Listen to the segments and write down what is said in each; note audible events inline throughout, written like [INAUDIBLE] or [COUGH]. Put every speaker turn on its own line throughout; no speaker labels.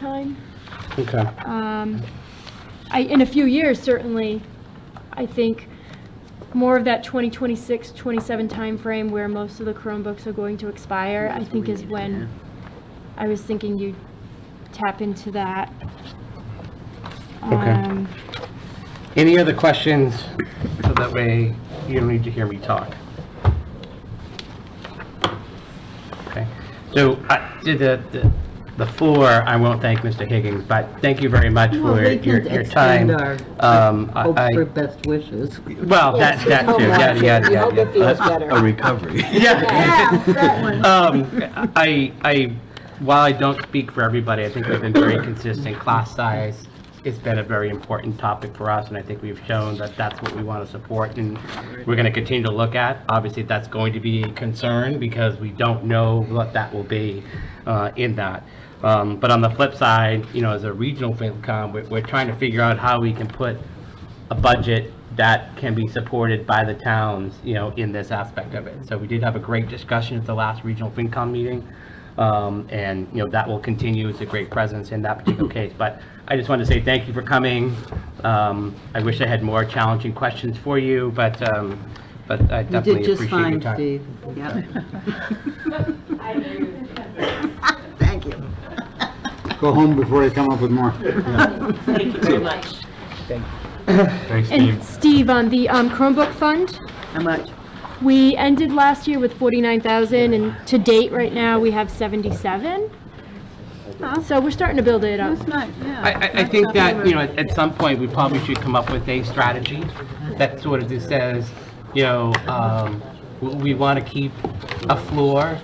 time.
Okay,
Um, I, in a few years, certainly, I think more of that 2026, 27 timeframe where most of the Chromebooks are going to expire, I think is when I was thinking you tap into that.
Okay.
Um,
any other questions, so that way you don't need to hear me talk? Okay, so I, to the, the- the floor, I won't thank Mr. Higgins, but thank you very much
Well,
for
we
your,
can
your time.
extend
Um, I-
Hope
I-
for best wishes.
Well, that, that too, yeah, yeah, Uh, yeah, yeah.
feels
a recovery.
Yeah. Um, I, I, while I don't speak for everybody, I think we've been very consistent. Class size has been a very important topic for us, and I think we've shown that that's what we want to support, and we're going to continue to look at. Obviously, that's going to be a concern, because we don't know what that will be uh, in that. Um, But on the flip side, you know, as a regional FinCom, we're, we're trying to figure out how we can put a budget that can be supported by the towns, you know, in this aspect of it. So we did have a great discussion at the last regional FinCom meeting, um, and, you know, that will continue. It's a great presence in that particular case. But I just want to say thank you for coming. Um, I wish I had more challenging questions for you, but, um, but I
You
definitely
did just
appreciate your
fine,
time.
Steve. Yep. Thank you.
Go home before they come up with more.
Thanks,
And
Steve.
Steve, on the um, Chromebook fund,
How much?
we ended last year with 49,000, and to date, right now, we have 77. So we're starting to build it up.
That's not, yeah.
I, I, I think that, you know, at, at some point, we probably should come up with a strategy that sort of just says, you know, um, w- we want to keep a floor,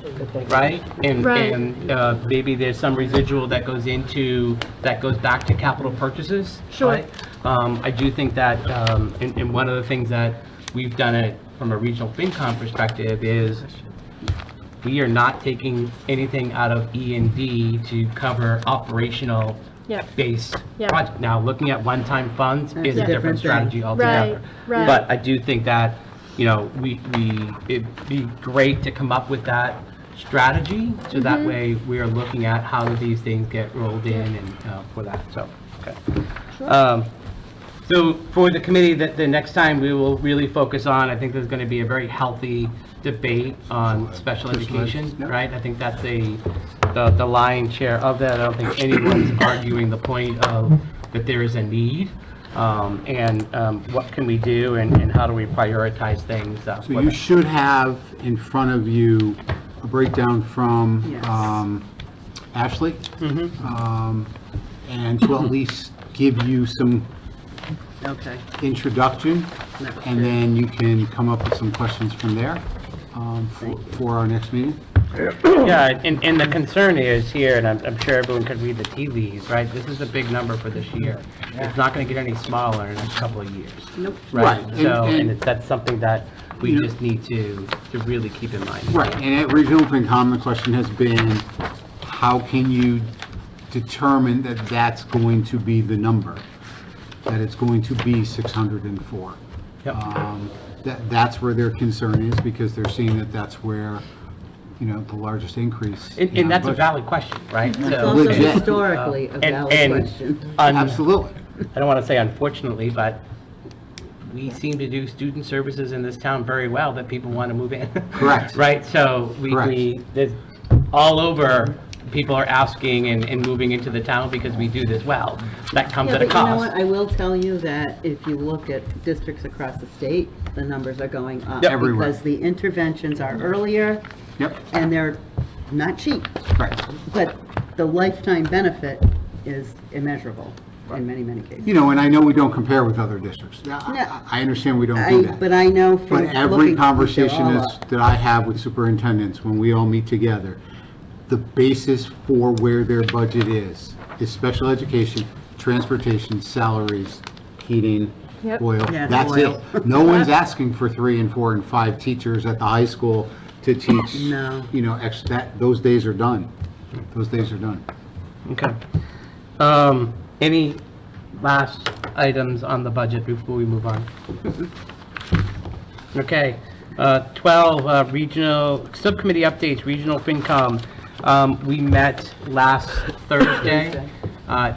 right? And,
Right.
and, uh, maybe there's some residual that goes into, that goes back to capital purchases.
Sure.
right? Um, I do think that, um, and, and one of the things that we've done it from a regional FinCom perspective is we are not taking anything out of E and D to cover operational
Yep.
based
Yeah.
project. Now, looking at one-time funds is a
a
different
different thing.
strategy altogether.
right.
But I do think that, you know, we, we, it'd be great to come up with that strategy, so
Mm-hmm.
that way we are looking at how these things get rolled in and uh, for that, so, okay. Um, So for the committee, that the next time we will really focus on, I think there's going to be a very healthy debate on special education, right? I think that's a, the the lion's share of that. I don't think
[COUGHS]
anyone's arguing the point of that there is a need. um, And um, what can we do and and how do we prioritize things? uh,
So
for
you
that.
should have in front of you a breakdown from
Yes.
um, Ashley. Um, And to at least give you some
Okay.
Uh, introduction,
That was
and then you can come up with some questions from there um, for for our next meeting.
Yeah, and, and the concern is here, and I'm, I'm sure everyone could read the tea leaves, right? This is a big number for this year. It's not gonna get any smaller in a couple of years.
Nope.
Right,
Right, and-
so, and
and-
it's- that's something that we
You-
just need to, to really keep in mind.
Right, and at Regional FinCom, the question has been, how can you determine that that's going to be the number? That it's going to be 604?
Yep.
Um, That, that's where their concern is, because they're seeing that that's where, you know, the largest increase.
And,
in
and
our
that's a
budget.
valid question, right? So-
It's also
Legit.
historically a
Uh, And-
valid
and
question.
un-
Absolutely.
I don't wanna say unfortunately, but we seem to do student services in this town very well that people wanna move in. [LAUGHS]
Correct.
Right, so we,
Correct.
we, there's, all over, people are asking and, and moving into the town because we do this well. That comes
Yeah,
at a
but you know what?
cost.
I will tell you that if you look at districts across the state, the numbers are going up.
Yep. Everywhere.
Because the interventions are earlier
Yep,
and they're not cheap.
right.
But the lifetime benefit is immeasurable in many, many cases.
You know, and I know we don't compare with other districts. I- I I understand we don't do
I,
that.
but I know from
But
looking.
every
they're
conversation
all
is,
up.
that I have with superintendents, when we all meet together, the basis for where their budget is, is special education, transportation, salaries, heating,
Yep.
oil.
Yeah,
That's
oil. [LAUGHS]
it. No one's asking for three and four and five teachers at the high school to teach,
No.
you know, ex, that, those days are done. Those days are done.
Okay. Um, any last items on the budget before we move
[LAUGHS]
on? Okay, uh, 12, uh, regional, subcommittee updates, regional FinCom. Um, We met last Thursday. uh,